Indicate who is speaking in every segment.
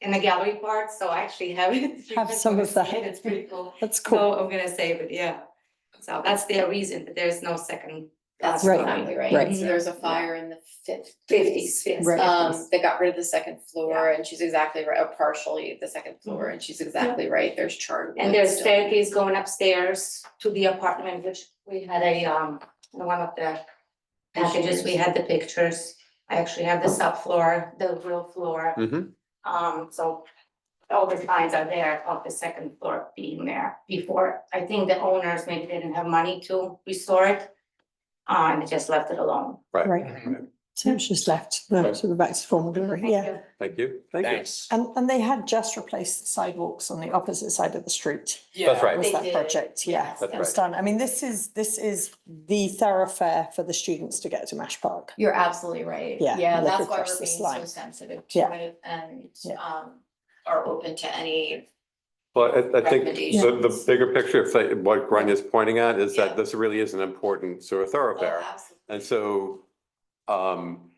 Speaker 1: in the gallery part, so I actually have it.
Speaker 2: Have some of that.
Speaker 1: It's pretty cool.
Speaker 2: That's cool.
Speaker 1: So I'm gonna save it, yeah. So that's their reason, that there's no second. Mm-hmm.
Speaker 3: That's
Speaker 2: Right,
Speaker 3: probably right.
Speaker 2: right.
Speaker 3: There was a fire in the
Speaker 1: Fifties,
Speaker 3: fifties.
Speaker 1: yes.
Speaker 2: Right.
Speaker 3: Um, they got rid of the second floor and she's exactly right, or partially the second floor, and she's exactly right, Mm-hmm. there's charred.
Speaker 1: And
Speaker 3: wood
Speaker 1: there's
Speaker 3: still.
Speaker 1: staircase going upstairs to the apartment, which we had a, um, in one of the packages, we had the pictures. I actually have the subfloor, the real floor,
Speaker 4: Mhm.
Speaker 1: um, so all the signs are there of the second floor being there before. I think the owners maybe didn't have money to restore it, uh, and they just left it alone.
Speaker 2: Right. So it's just left the sort of back to former glory,
Speaker 1: Thank
Speaker 2: yeah.
Speaker 1: you.
Speaker 4: Thank you. Thank you.
Speaker 5: Thanks.
Speaker 2: And, and they had just replaced the sidewalks on the opposite side of the street.
Speaker 4: That's right.
Speaker 2: Was
Speaker 1: They
Speaker 2: that
Speaker 1: did.
Speaker 2: project, yeah.
Speaker 1: Yes.
Speaker 4: That's
Speaker 2: It was done. I mean, this is, this is the thoroughfare for the students to get to Mash Park.
Speaker 3: You're absolutely right.
Speaker 2: Yeah,
Speaker 3: Yeah,
Speaker 2: look
Speaker 3: that's why
Speaker 2: across
Speaker 3: we're
Speaker 2: the
Speaker 3: being so
Speaker 2: slide.
Speaker 3: sensitive to
Speaker 2: Yeah.
Speaker 3: it and
Speaker 2: Yeah.
Speaker 3: um are open to any
Speaker 4: Well, I, I think the, the
Speaker 3: Recommendations.
Speaker 4: bigger picture of like what Grania's pointing at is
Speaker 3: Yeah.
Speaker 4: that this really is an important sort of
Speaker 3: Oh,
Speaker 4: thoroughfare. And so, um,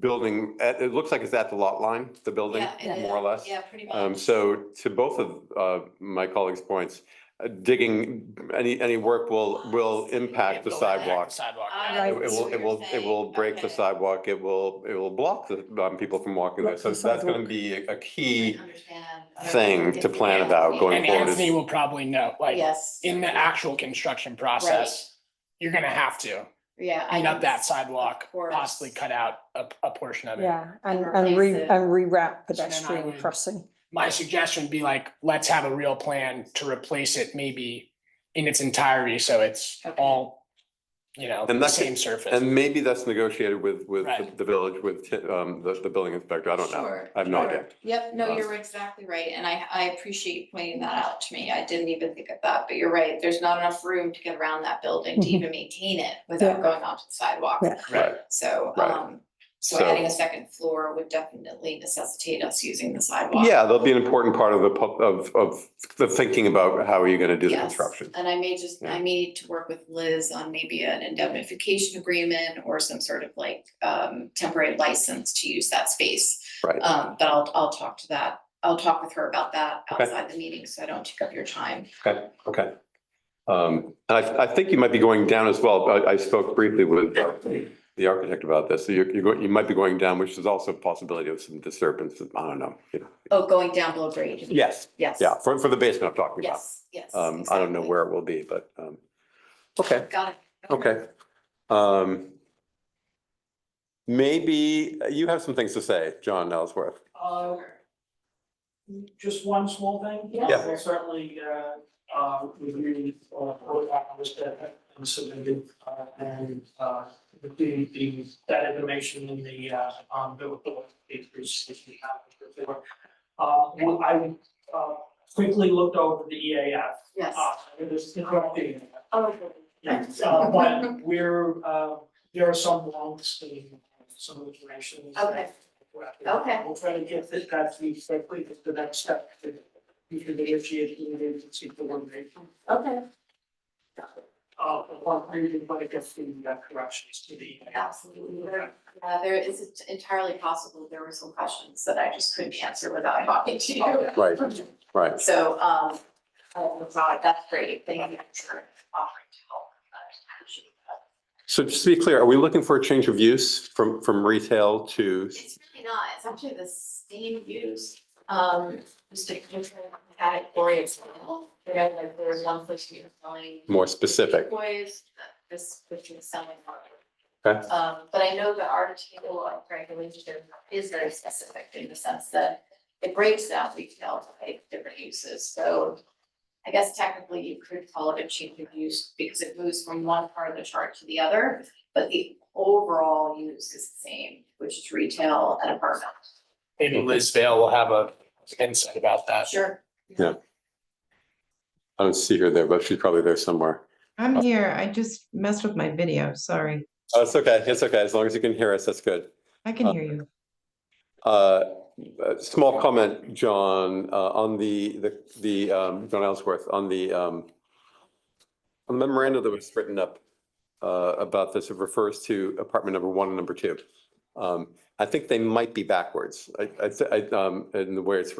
Speaker 4: building, uh, it, it looks like it's at the lot line, the building,
Speaker 3: Yeah, it
Speaker 4: more or less.
Speaker 3: Yeah, pretty much.
Speaker 4: Um, so to both of, uh, my colleagues' points, uh, digging, any, any work will, will impact the
Speaker 5: Go back to
Speaker 4: sidewalks.
Speaker 5: Sidewalk.
Speaker 3: Ah,
Speaker 4: It
Speaker 2: Right.
Speaker 4: it will, it will, it will break the
Speaker 3: Okay.
Speaker 4: sidewalk, it will, it will block the, um, people from walking there.
Speaker 2: Block
Speaker 4: So
Speaker 2: the
Speaker 4: that's gonna
Speaker 2: sidewalk.
Speaker 4: be a a key
Speaker 3: I understand. uh,
Speaker 4: thing to plan about going
Speaker 5: And
Speaker 4: forward.
Speaker 5: Anthony will probably know, like,
Speaker 3: Yes.
Speaker 5: in the actual construction process, you're gonna have to
Speaker 3: Yeah. I
Speaker 5: clean up
Speaker 3: can
Speaker 5: that
Speaker 3: s-
Speaker 5: sidewalk,
Speaker 3: of course.
Speaker 5: possibly cut out a, a portion of it.
Speaker 2: Yeah, and,
Speaker 3: And
Speaker 2: and re,
Speaker 3: replace it.
Speaker 2: and reroute
Speaker 5: then I
Speaker 2: pedestrian
Speaker 5: would-
Speaker 2: crossing.
Speaker 5: My suggestion would be like, let's have a real plan to replace it maybe in its entirety, so it's
Speaker 3: Okay.
Speaker 5: all, you know,
Speaker 4: And
Speaker 5: the
Speaker 4: that could-
Speaker 5: same surface.
Speaker 4: And maybe that's negotiated with, with the-
Speaker 5: Right.
Speaker 4: the village, with, um, the, the building inspector, I don't know.
Speaker 3: Sure,
Speaker 4: I have no
Speaker 3: sure.
Speaker 4: idea.
Speaker 3: Yep, no,
Speaker 4: Um,
Speaker 3: you're exactly right, and I, I appreciate you pointing that out to me, I didn't even think of that, but you're right, there's not enough room to get around that building to
Speaker 2: Mhm.
Speaker 3: even maintain it without
Speaker 2: Yeah.
Speaker 3: going onto the sidewalk,
Speaker 2: Yeah.
Speaker 5: Right.
Speaker 3: so,
Speaker 4: Right.
Speaker 3: um, so
Speaker 4: So-
Speaker 3: adding a second floor would definitely necessitate us using the sidewalk.
Speaker 4: Yeah, that'll be an important part of the, pub- of, of the thinking about how are you gonna do the
Speaker 3: Yes,
Speaker 4: construction.
Speaker 3: And I may just, I
Speaker 4: Yeah.
Speaker 3: may need to work with Liz on maybe an indemnification agreement or some sort of like um temporary license to use that space.
Speaker 4: Right.
Speaker 3: Um, but I'll, I'll talk to that, I'll talk with her about that
Speaker 4: Okay.
Speaker 3: outside the meeting, so I don't take up your time.
Speaker 4: Okay, okay. Um, and I, I think you might be going down as well, I, I spoke briefly with uh, the architect about this, so you're, you're, go- you might be going down, which is also a possibility of some disturbance, I don't know. you know.
Speaker 3: Oh, going down below grade,
Speaker 4: Yes,
Speaker 3: yes.
Speaker 4: yeah, for, for the basement I'm talking about.
Speaker 3: Yes, yes.
Speaker 4: Um, I don't know
Speaker 3: exactly.
Speaker 4: where it will be, but, um, okay.
Speaker 3: Got it.
Speaker 4: Okay. Um, maybe uh, you have some things to say, John Ellsworth.
Speaker 6: Uh, Just one small thing?
Speaker 4: Yeah.
Speaker 6: Well, Certainly, uh, uh, we really, uh, all hours that have submitted, uh, and, uh, the, the, that information in the, uh, um, the, the papers that we have before. Uh, well, I, uh, quickly looked over the EAF,
Speaker 3: Yes.
Speaker 6: uh, it is interrupting.
Speaker 3: Oh,
Speaker 6: Yes, uh, but we're, uh, there are some wrongs in some of the directions. that-
Speaker 3: Okay. Okay.
Speaker 6: We'll try to get this, that's the, quickly, it's the next step to, you can negotiate the agency coordination.
Speaker 3: okay,
Speaker 6: Uh, one, reason, but it gets the uh, corrections to the.
Speaker 3: absolutely. Uh, there is entirely possible there were some questions that I just couldn't answer without talking to you.
Speaker 4: Right, right.
Speaker 3: So, um, oh, that's all right. that's great, thank you for offering to help. Uh, actually, uh,
Speaker 4: So just to be clear, are we looking for a change of use from, from retail to?
Speaker 3: It's really not, it's actually the same use, um, just a different category of sale. They have like, there's one place you're selling.
Speaker 4: More specific.
Speaker 3: Toys, this, which is selling. art.
Speaker 4: Okay.
Speaker 3: Um, but I know the article of regulation is very specific in the sense that it breaks out retail to like different uses, so. I guess technically you could call it a change of use because it moves from one part of the chart to the other, but the overall use is the same, which is retail and apartment.
Speaker 5: Maybe Liz Vale will have a insight about that.
Speaker 3: Sure.
Speaker 4: I don't see her there, but she's probably there somewhere.
Speaker 7: I'm here. I just messed with my video. Sorry.
Speaker 4: Oh, it's okay. It's okay. As long as you can hear us, that's good.
Speaker 7: I can
Speaker 4: Uh,
Speaker 7: hear you.
Speaker 4: Uh, a small comment, John, uh, on the, the, the, um, John Ellsworth, on the, um, on the memorandum that was written up, uh, about this, it refers to apartment number one and number two. Um, I think they might be backwards. I, I, I, um, in the way it's